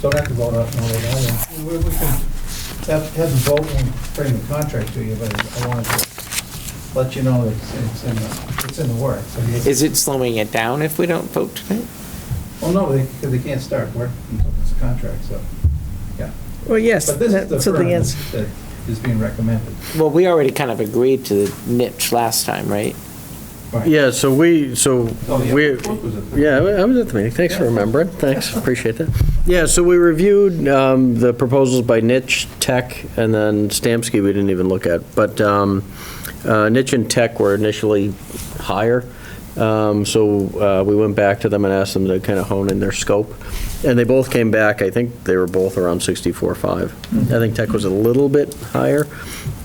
So I have to vote on all of that. and We we can, have have the vote and bring the contract to you, but I wanted to let you know that it's- it's in, the- it's in the works. I mean, it's- Is it slowing it down if we don't vote tonight? Well, no, they, 'cause they can't start work until it's a contract, so, yeah. Well, yes, But this is the that's the firm answer. that's- that is being recommended. Well, we already kind of agreed to the niche last time, right? Right. Yeah, so we, so Oh, yeah. we, Brooke was at the- yeah, I was at the meeting, thanks for remembering, thanks, appreciate that. Yeah, so we reviewed um, the proposals by Niche, Tech, and then Stamsky we didn't even look at, but um, uh, Niche and Tech were initially higher, Um, so uh, we went back to them and asked them to kind of hone in their scope, and they both came back, I think they were both around 64.5. I think Tech was a little bit higher.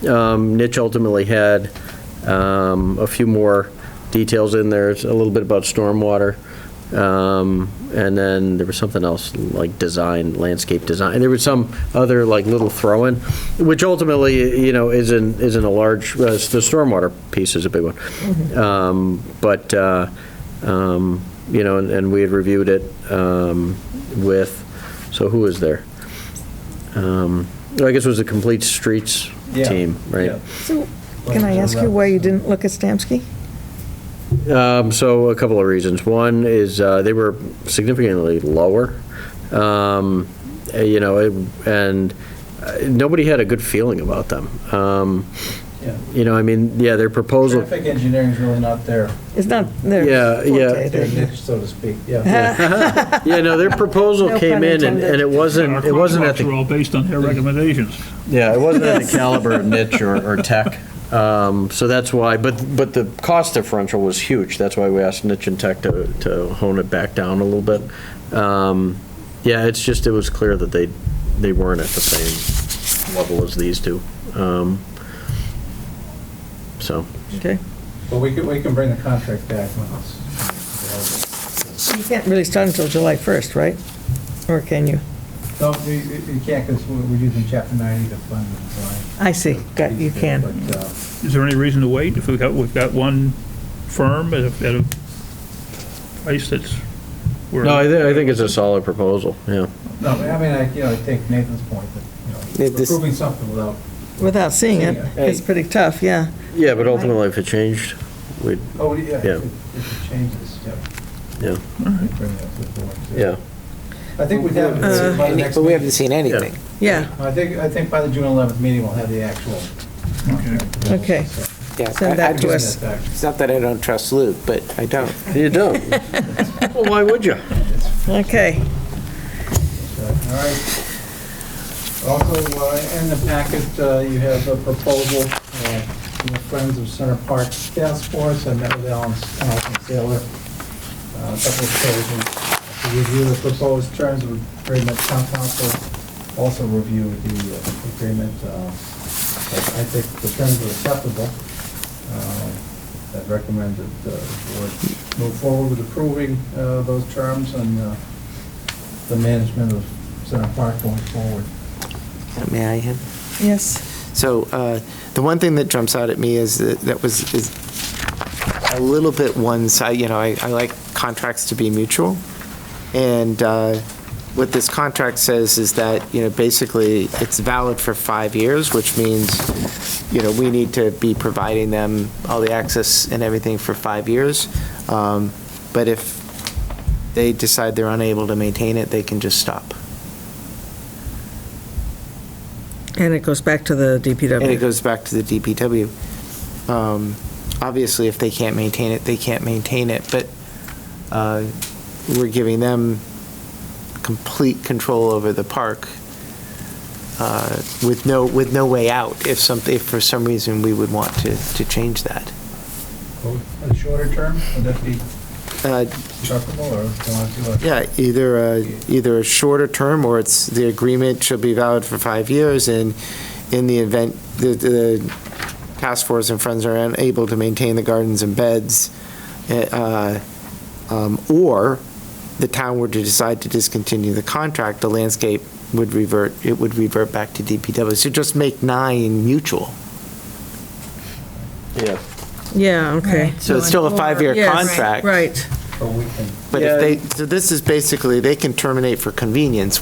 Um, Niche ultimately had um, a few more details in there, It's a little bit about stormwater, um, and then there was something else, like design, landscape design, there was some other like little throw-in, which ultimately, you know, isn't, isn't a large, uh, the stormwater piece is a big Mm-hmm. one. Um, But, uh, um, you know, and- and we had reviewed it um, with, so who was there? Um, I guess it was the Complete Streets Yeah, team, right? yeah. uh, So, can I ask you why you didn't look at Stamsky? Um, So a couple of reasons. One is uh, they were significantly lower, um, eh, you know, it- and uh, nobody had a good feeling about them. Um, Yeah. You know, I mean, yeah, their proposal. Traffic engineering's really not their, It's not their Yeah, yeah. forte, their their- niche, so to speak, yeah. Yeah, no, their proposal No came pun in and- intended. and it wasn't, Our it wasn't at contracts were the, all based on their recommendations. yeah, it wasn't at the caliber of niche or or tech. Um, So that's why, but, but the cost differential was huge. That's why we asked niche and tech to to hone it back down a little bit. Um, Yeah, it's just, it was clear that they, they weren't at the same level as these two. Um, So, Okay. But we can, we can bring the contract back when it's. You can't really start until July 1st, right? Or can you? No, you, you you can't, because we're using chapter ninety to fund the design. I see, got, you can. But, uh, Is there any reason to wait if we've got, we've got one firm at a, at a price that's? we're- no, I thi- I think it's a solid proposal, yeah. No, I mean, I, you know, I take Nathan's point that, you Yeah, know, this- approving something without, Without seeing it, Hey. it's pretty tough, yeah. Yeah, but ultimately, if it changed, we'd, oh, yeah, Yeah. if it- if it changes, yeah. Yeah. Mm-hmm. We Bring that to the board. so. yeah. I think we'd have, Uh, it by the Any- next But we haven't meeting. seen anything. Yeah, I think, I think by the June eleventh meeting, we'll have the actual. contract. Okay. So, Yeah, Send I- I that to just- us. bring that back. It's not that I don't trust Luke, but I don't. You don't. Well, why would you? okay. So, All right. Also, uh, in the packet, uh, you have a proposal uh, from the Friends of Center Park Task Force. I met with Alan Alan Taylor uh, a couple of occasions to review the proposed terms of agreement. Town council also reviewed the uh, agreement. uh, but I think the terms are acceptable. Uh, I'd recommend that uh, the board move forward with approving uh, those terms and uh, the management of Center Park going forward. May I have? Yes, So uh, the one thing that jumps out at me is that that was, is a little bit one side, you know, I, I like contracts to be mutual. And uh, what this contract says is that, you know, basically, it's valid for five years, which means, you know, we need to be providing them all the access and everything for five years. Um, But if they decide they're unable to maintain it, they can just stop. and it goes back to the And it DPW. goes back to the DPW. Um, Obviously, if they can't maintain it, they can't maintain it, but uh, we're giving them complete control over the park uh, with no, with no way out if some, if for some reason we would want to, to change that. For the shorter term, would that be Uh, acceptable, or do you want to do a? Yeah, either, a- either a shorter term, or it's, the agreement shall be valid for five years, and in the event, the, the task force and friends are unable to maintain the gardens and beds, eh, uh, um, or the town were to decide to discontinue the contract, the landscape would revert, it would revert back to DPW. So just make nine mutual. Yeah. Yeah, okay. So it's still a five-year Yes, contract. Right. Or we can But if they, so this is basically, they can terminate for convenience.